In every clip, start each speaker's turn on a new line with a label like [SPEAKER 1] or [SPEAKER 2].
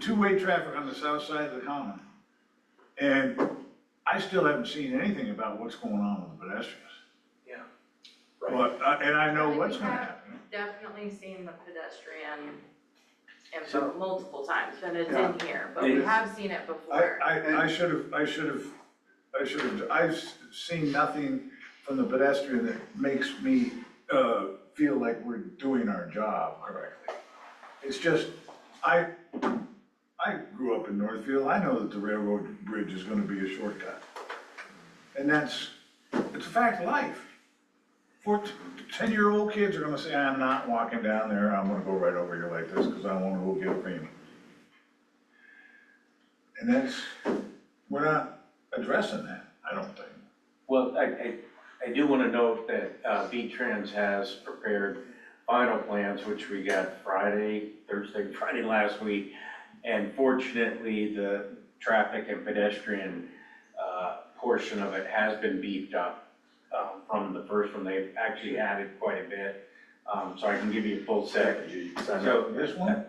[SPEAKER 1] two-way traffic on the south side of the common. And I still haven't seen anything about what's going on with the pedestrians.
[SPEAKER 2] Yeah.
[SPEAKER 1] But, uh, and I know
[SPEAKER 3] Right, we
[SPEAKER 1] what's gonna
[SPEAKER 3] have-
[SPEAKER 1] happen.
[SPEAKER 3] Definitely seen the pedestrian info multiple times, and it's in
[SPEAKER 1] Yeah.
[SPEAKER 3] here, but we
[SPEAKER 2] Yes.
[SPEAKER 3] have seen it
[SPEAKER 1] I,
[SPEAKER 3] before.
[SPEAKER 1] I, I should have, I should have, I should have, I've s- seen nothing from the pedestrian that makes me, uh, feel like we're doing our job correctly. It's just, I, I grew up in Northfield, I know that the railroad bridge is gonna be a shortcut. And that's, it's a fact of life. Four, ten-year-old kids are gonna say, I'm not walking down there, I'm gonna go right over here like this, cause I wanna go get a cream. And that's, we're not addressing that, I don't think.
[SPEAKER 4] Well, I, I, I do wanna note that, uh, V-Trans has prepared final plans, which we got Friday, Thursday, Friday last week. And fortunately, the traffic and pedestrian, uh, portion of it has been beefed up, um, from the first one. They've actually added quite a bit. Um, so I can give you a full set. So,
[SPEAKER 1] This one,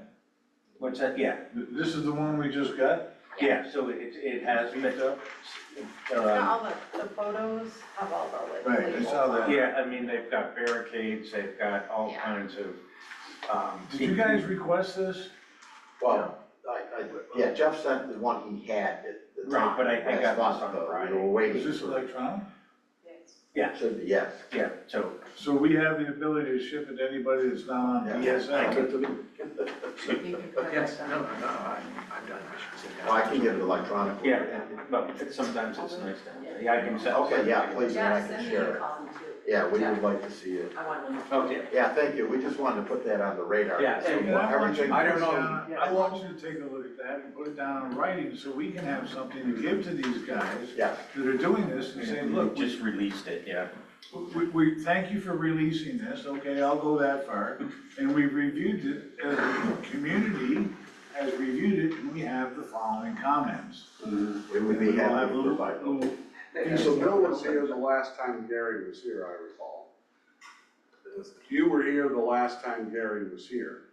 [SPEAKER 4] what's that? Yeah,
[SPEAKER 1] Th- this is the one we just got?
[SPEAKER 4] yeah, so it, it has been,
[SPEAKER 3] And
[SPEAKER 4] uh,
[SPEAKER 3] All the, the photos have all the
[SPEAKER 1] Right,
[SPEAKER 3] like
[SPEAKER 1] I
[SPEAKER 3] labels
[SPEAKER 1] saw that.
[SPEAKER 3] on it.
[SPEAKER 4] yeah, I mean, they've got barricades, they've got all
[SPEAKER 3] Yeah.
[SPEAKER 4] kinds of, um.
[SPEAKER 1] Did you guys request this?
[SPEAKER 2] Well,
[SPEAKER 4] Well,
[SPEAKER 2] I, I, yeah, Jeff sent the one he had at the time.
[SPEAKER 4] Right, but I- I got
[SPEAKER 2] last
[SPEAKER 4] this
[SPEAKER 2] month,
[SPEAKER 4] on
[SPEAKER 2] though.
[SPEAKER 4] Friday.
[SPEAKER 2] We were waiting.
[SPEAKER 1] Is this
[SPEAKER 2] for-
[SPEAKER 1] electronic?
[SPEAKER 3] Yes.
[SPEAKER 2] Should be, yes.
[SPEAKER 4] Yeah, so
[SPEAKER 1] So we have the ability to ship it to anybody that's not on E
[SPEAKER 2] Yeah.
[SPEAKER 1] DSL?
[SPEAKER 3] You can correct
[SPEAKER 5] Yes,
[SPEAKER 3] that.
[SPEAKER 5] no, no, I, I've done, I should sit down.
[SPEAKER 2] Well, I can get it electronically.
[SPEAKER 4] Yeah, but it's- sometimes it's nice to have, yeah, I can set.
[SPEAKER 2] Okay, yeah, please, and I can
[SPEAKER 3] Yeah, send me
[SPEAKER 2] share
[SPEAKER 3] a
[SPEAKER 2] it.
[SPEAKER 3] copy too.
[SPEAKER 2] Yeah, we
[SPEAKER 3] Yeah.
[SPEAKER 2] would like to see it.
[SPEAKER 3] I want to.
[SPEAKER 4] Okay,
[SPEAKER 2] Yeah, thank you. We just wanted to put that on the radar.
[SPEAKER 4] Yeah,
[SPEAKER 2] So
[SPEAKER 4] and
[SPEAKER 1] And I want you to
[SPEAKER 2] Everything.
[SPEAKER 4] I don't
[SPEAKER 1] put
[SPEAKER 4] know.
[SPEAKER 1] down-
[SPEAKER 4] Yeah.
[SPEAKER 1] I want you to take a look at that and put it down in writing so we can have something to give to these guys
[SPEAKER 2] Yeah.
[SPEAKER 1] that are doing this and say, look, we-
[SPEAKER 4] just released it, yeah.
[SPEAKER 1] we, we, thank you for releasing this, okay, I'll go that far. And we reviewed it, uh, the community has reviewed it and we have the following comments.
[SPEAKER 2] We would be
[SPEAKER 1] And Mm-hmm. we'll
[SPEAKER 2] happy
[SPEAKER 1] have
[SPEAKER 2] to
[SPEAKER 1] little-
[SPEAKER 2] provide those.
[SPEAKER 1] little-
[SPEAKER 6] And so Bill was here the last time Gary was here, I recall. You were here the last time Gary was here,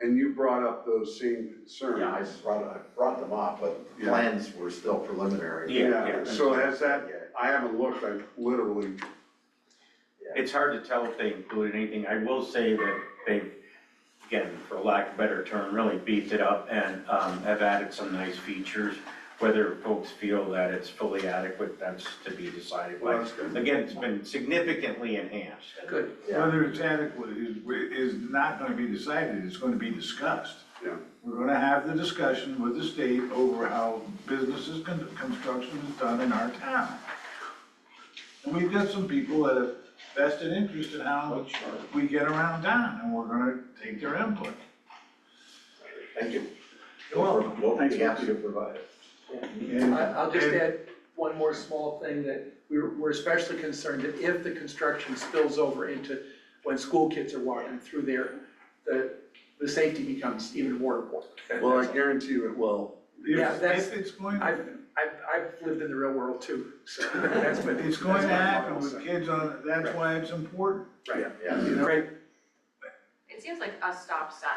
[SPEAKER 6] and you brought up those same concerns.
[SPEAKER 2] Yeah, I just brought, I brought them up, but
[SPEAKER 6] Yeah.
[SPEAKER 2] plans were still preliminary.
[SPEAKER 4] Yeah, yeah.
[SPEAKER 6] So has that,
[SPEAKER 2] Yeah.
[SPEAKER 6] I haven't looked, I literally,
[SPEAKER 4] It's hard to tell if they included anything. I will say that they, again, for lack of a better term, really beefed it up and um, have added some nice features. Whether folks feel that it's fully adequate, that's to be decided
[SPEAKER 6] Well,
[SPEAKER 4] by.
[SPEAKER 6] that's good.
[SPEAKER 4] Again, it's been significantly enhanced.
[SPEAKER 5] Good,
[SPEAKER 2] Yeah.
[SPEAKER 1] Whether it's adequate is, is not gonna be decided, it's gonna be discussed.
[SPEAKER 6] Yeah.
[SPEAKER 1] We're gonna have the discussion with the state over how businesses, con- construction is done in our town. And we've got some people that have vested interest in how we get around town, and we're gonna take their input.
[SPEAKER 2] Thank you.
[SPEAKER 1] You're welcome.
[SPEAKER 2] We'll
[SPEAKER 1] Thanks,
[SPEAKER 2] be happy to provide it.
[SPEAKER 1] And-
[SPEAKER 5] I, I'll just
[SPEAKER 1] and-
[SPEAKER 5] add one more small thing that we're, we're especially concerned that if the construction spills over into when school kids are walking through there, the, the safety becomes even more important.
[SPEAKER 6] well, I guarantee you it will.
[SPEAKER 5] Yeah,
[SPEAKER 1] If,
[SPEAKER 5] that's-
[SPEAKER 1] if it's going,
[SPEAKER 5] I've, I've, I've lived in the real world too, so that's what.
[SPEAKER 1] it's going to
[SPEAKER 5] that's what I'm
[SPEAKER 1] happen with
[SPEAKER 5] also-
[SPEAKER 1] kids on, that's why it's important.
[SPEAKER 2] Yeah.
[SPEAKER 1] you know?
[SPEAKER 5] Right,
[SPEAKER 3] It seems like a stop sign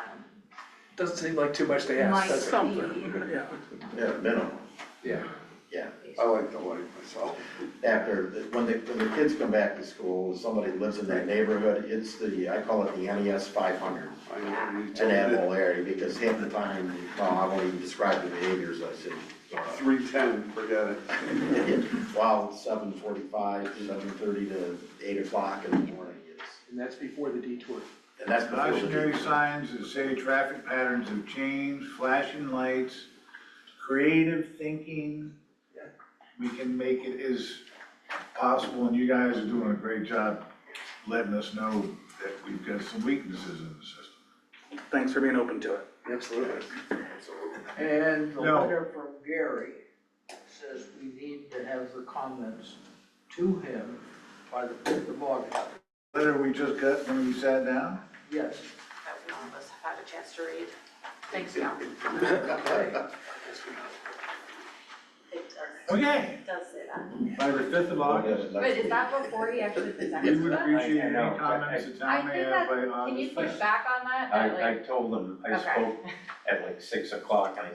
[SPEAKER 5] doesn't seem like too much to
[SPEAKER 3] might be.
[SPEAKER 5] ask, does it? Yeah.
[SPEAKER 2] Yeah, minimum.
[SPEAKER 5] Yeah.
[SPEAKER 6] I like the light myself.
[SPEAKER 2] After, the- when the, when the kids come back to school, somebody lives in that neighborhood, it's the, I call it the NES five hundred.
[SPEAKER 6] I know you
[SPEAKER 2] It's an
[SPEAKER 6] told me
[SPEAKER 2] animal area, because half the time, well, I won't even describe the behaviors, I said, uh,
[SPEAKER 6] that. Three ten, forget it.
[SPEAKER 2] wow, it's seven forty-five, seven thirty to eight o'clock in the morning, it's,
[SPEAKER 5] And that's before the detour.
[SPEAKER 2] and that's before the.
[SPEAKER 1] Cautionary signs that say traffic patterns have changed, flashing lights, creative thinking. We can make it as possible, and you guys are doing a great job letting us know that we've got some weaknesses in the system.
[SPEAKER 7] Thanks for being open to it.
[SPEAKER 6] Absolutely.
[SPEAKER 8] And the
[SPEAKER 1] No.
[SPEAKER 8] letter from Gary says we need to have the comments to him by the fifth of August.
[SPEAKER 1] Letter we just got when we sat down,
[SPEAKER 8] Yes.
[SPEAKER 3] that we
[SPEAKER 1] Oh.
[SPEAKER 3] all of us have had a chance to read. Thanks, y'all. It does,
[SPEAKER 1] okay,
[SPEAKER 3] it does say that.
[SPEAKER 1] by the fifth of August.
[SPEAKER 2] Next
[SPEAKER 3] But is
[SPEAKER 2] week.
[SPEAKER 3] that before he actually presents
[SPEAKER 1] We
[SPEAKER 3] it?
[SPEAKER 1] would appreciate any
[SPEAKER 4] know, but
[SPEAKER 1] comments the
[SPEAKER 3] I
[SPEAKER 1] town may
[SPEAKER 3] think
[SPEAKER 1] have
[SPEAKER 3] that,
[SPEAKER 1] by August.
[SPEAKER 3] can you push
[SPEAKER 1] fifth.
[SPEAKER 3] back on that, that like?
[SPEAKER 4] I, I told them, I
[SPEAKER 3] Okay.
[SPEAKER 4] spoke at like six o'clock and I